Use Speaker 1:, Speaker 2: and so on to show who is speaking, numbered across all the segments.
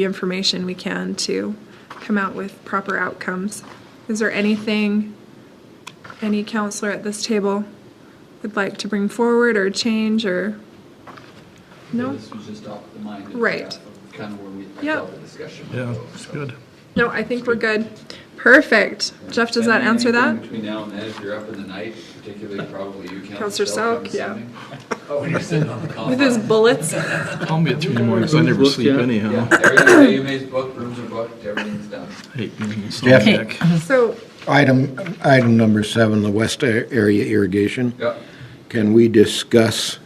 Speaker 1: the information we can to come out with proper outcomes. Is there anything any counselor at this table would like to bring forward or change or? No?
Speaker 2: This was just off the mind. of
Speaker 1: Right.
Speaker 2: Kind of where we, I
Speaker 1: Yep.
Speaker 2: felt the discussion. would
Speaker 3: Yeah,
Speaker 2: go,
Speaker 3: it's
Speaker 2: so.
Speaker 3: good.
Speaker 1: No, I think we're good. Perfect. Jeff, does that
Speaker 2: And
Speaker 1: answer
Speaker 2: anything
Speaker 1: that?
Speaker 2: Between now and then, if you're up in the night, particularly probably you,
Speaker 1: Counselor
Speaker 2: Counselor Selk.
Speaker 1: Selk, yeah.
Speaker 2: Oh, when you're sitting on the
Speaker 1: With
Speaker 2: compound.
Speaker 1: his bullets?
Speaker 3: Call me at three in the morning 'cause I never
Speaker 4: Rooms
Speaker 3: sleep
Speaker 4: booked, yeah.
Speaker 3: anyhow.
Speaker 2: Yeah, everything, AUMA's booked, rooms are booked, everything's done.
Speaker 3: Hate being
Speaker 5: Jeff.
Speaker 3: insomniac.
Speaker 1: So,
Speaker 5: Item, item number seven, the west a- area irrigation.
Speaker 2: Yep.
Speaker 5: Can we discuss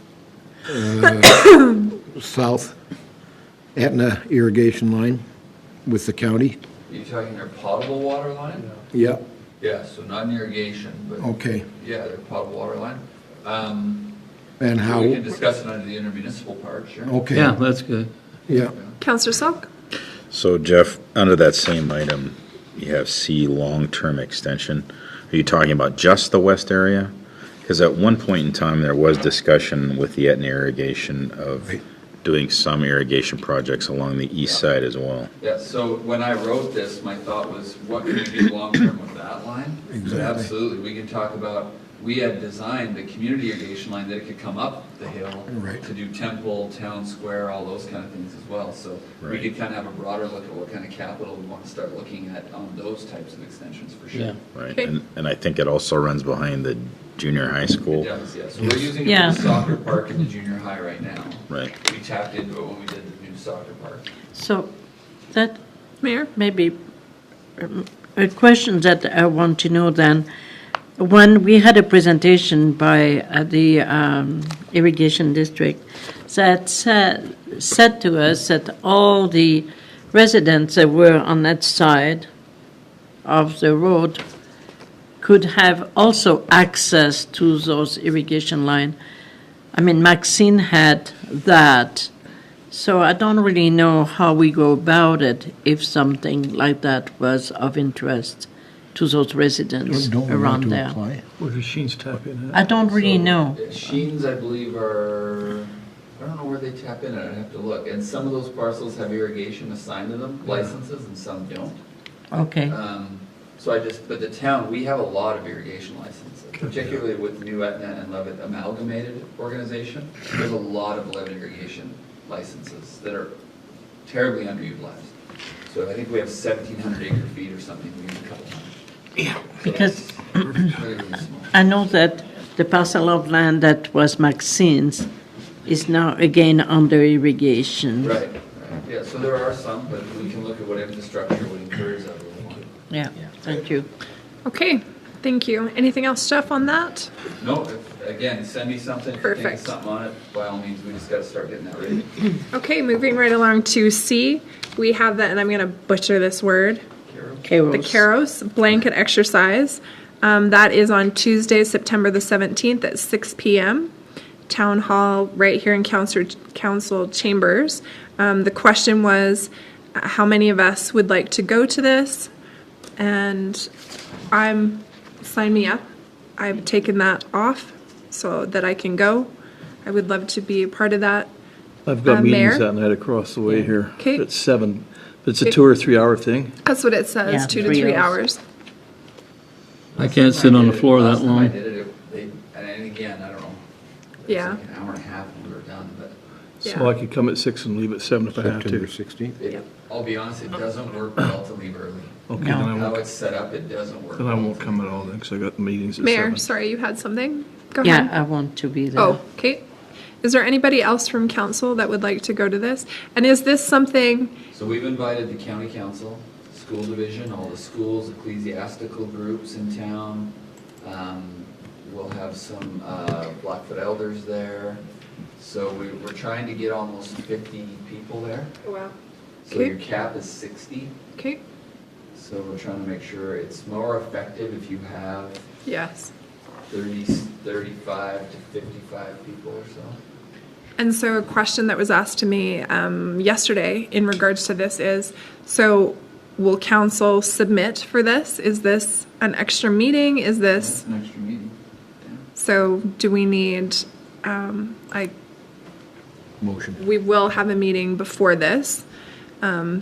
Speaker 5: uh, south Etna irrigation line with the county?
Speaker 2: You talking their potable water line?
Speaker 5: Yep,
Speaker 2: Yeah, so not an irrigation, but
Speaker 5: okay.
Speaker 2: yeah, their potable water line. Um,
Speaker 5: And how,
Speaker 2: We can discuss it under the intermunicipal part, sure.
Speaker 5: okay,
Speaker 4: Yeah, that's good.
Speaker 5: yeah.
Speaker 1: Counselor Selk?
Speaker 6: So Jeff, under that same item, you have C, long-term extension. Are you talking about just the west area? Because at one point in time, there was discussion with the Etna irrigation of doing some irrigation projects along the east side as well.
Speaker 2: Yeah, so when I wrote this, my thought was, what can we do long-term with that line?
Speaker 5: Exactly.
Speaker 2: Absolutely, we can talk about, we had designed the community irrigation line that it could come up the hill
Speaker 5: Right.
Speaker 2: to do Temple, Town Square, all those kind of things as well. So we
Speaker 6: Right.
Speaker 2: could kind of have a broader look at what kind of capital we want to start looking at on those types of extensions for
Speaker 4: Yeah.
Speaker 2: sure.
Speaker 6: Right,
Speaker 1: Okay.
Speaker 6: and, and I think it also runs behind the junior high
Speaker 2: It
Speaker 6: school.
Speaker 2: does, yeah, so we're using
Speaker 7: Yeah.
Speaker 2: the soccer park in the junior high right now.
Speaker 6: Right.
Speaker 2: We tapped into it when we did the new soccer park.
Speaker 7: So that
Speaker 1: Mayor?
Speaker 7: may be um, a question that I want to know then. When we had a presentation by uh, the um, irrigation district that said, said to us that all the residents that were on that side of the road could have also access to those irrigation line. I mean, Maxine had that. So I don't really know how we go about it if something like that was of interest to those residents
Speaker 5: Don't we want
Speaker 7: around
Speaker 5: to
Speaker 7: there.
Speaker 5: apply?
Speaker 3: Where's the Sheen's tap in
Speaker 7: I
Speaker 3: at?
Speaker 7: don't really
Speaker 2: So,
Speaker 7: know.
Speaker 2: yeah, Sheens, I believe, are, I don't know where they tap in, I'd have to look. And some of those parcels have irrigation assigned to them, licenses, and some don't.
Speaker 7: Okay,
Speaker 2: Um, So I just, but the town, we have a lot of irrigation licenses, particularly with New Etna and Levitt Amalgamated Organization. There's a lot of Levitt irrigation licenses that are terribly underutilized. So I think we have 1,700 acre feet or something, we use a couple hundred.
Speaker 7: because
Speaker 2: It's really, really small.
Speaker 7: I know that the parcel of land that was Maxine's is now again under irrigation.
Speaker 2: Right, right. yeah, so there are some, but we can look at what infrastructure would encourage that we want.
Speaker 7: Yeah, thank you.
Speaker 1: Okay, thank you. Anything else, Jeff, on that?
Speaker 2: No, if- again, send me something, if you think of
Speaker 1: Perfect.
Speaker 2: something on it, by all means, we just gotta start getting that ready.
Speaker 1: Okay, moving right along to C, we have that, and I'm going to butcher this word. the Caros blanket exercise. Um, that is on Tuesday, September the 17th at 6 p.m. Town Hall, right here in Council, Council Chambers. Um, the question was uh, how many of us would like to go to this? And I'm, sign me up. I've taken that off so that I can go. I would love to be a part of that.
Speaker 3: I've
Speaker 1: Uh,
Speaker 3: got
Speaker 1: Mayor?
Speaker 3: meetings that night across the way here.
Speaker 1: Okay.
Speaker 3: It's seven, it's a two or three hour thing.
Speaker 1: That's what it says,
Speaker 7: Yeah,
Speaker 1: two to
Speaker 7: three
Speaker 1: three
Speaker 7: hours.
Speaker 1: hours.
Speaker 4: I can't sit on the floor that
Speaker 2: Last time I
Speaker 4: long.
Speaker 2: did it, it, they, and again, I don't know. it was
Speaker 1: Yeah.
Speaker 2: like An hour and a half and we were done, but
Speaker 3: So I could come at six and leave at seven if I have
Speaker 5: September
Speaker 3: to.
Speaker 5: 16th?
Speaker 2: it, I'll be honest, it doesn't work well to leave early.
Speaker 3: Okay, then I
Speaker 2: How
Speaker 3: won't,
Speaker 2: it's set up, it doesn't work.
Speaker 3: then I
Speaker 2: well
Speaker 3: won't
Speaker 2: to
Speaker 3: come at all then, because I got meetings at
Speaker 1: Mayor,
Speaker 3: seven.
Speaker 1: sorry, you had something? Go ahead.
Speaker 7: Yeah, I want to be there.
Speaker 1: Oh, Kate, is there anybody else from council that would like to go to this? And is this something,
Speaker 2: So we've invited the county council, school division, all the schools, ecclesiastical groups in town. Um, We'll have some uh, Blackfoot elders there. So we- we're trying to get almost 50 people there.
Speaker 1: wow,
Speaker 2: So your
Speaker 1: Okay.
Speaker 2: cap is 60.
Speaker 1: Kate?
Speaker 2: So we're trying to make sure it's more effective if you have
Speaker 1: Yes.
Speaker 2: 30, 35 to 55 people or so.
Speaker 1: And so a question that was asked to me um, yesterday in regards to this is, so will council submit for this? Is this an extra meeting? Is
Speaker 2: That's
Speaker 1: this,
Speaker 2: an extra meeting.
Speaker 1: so do we need, um, I
Speaker 5: Motion.
Speaker 1: we will have a meeting before this. um, um,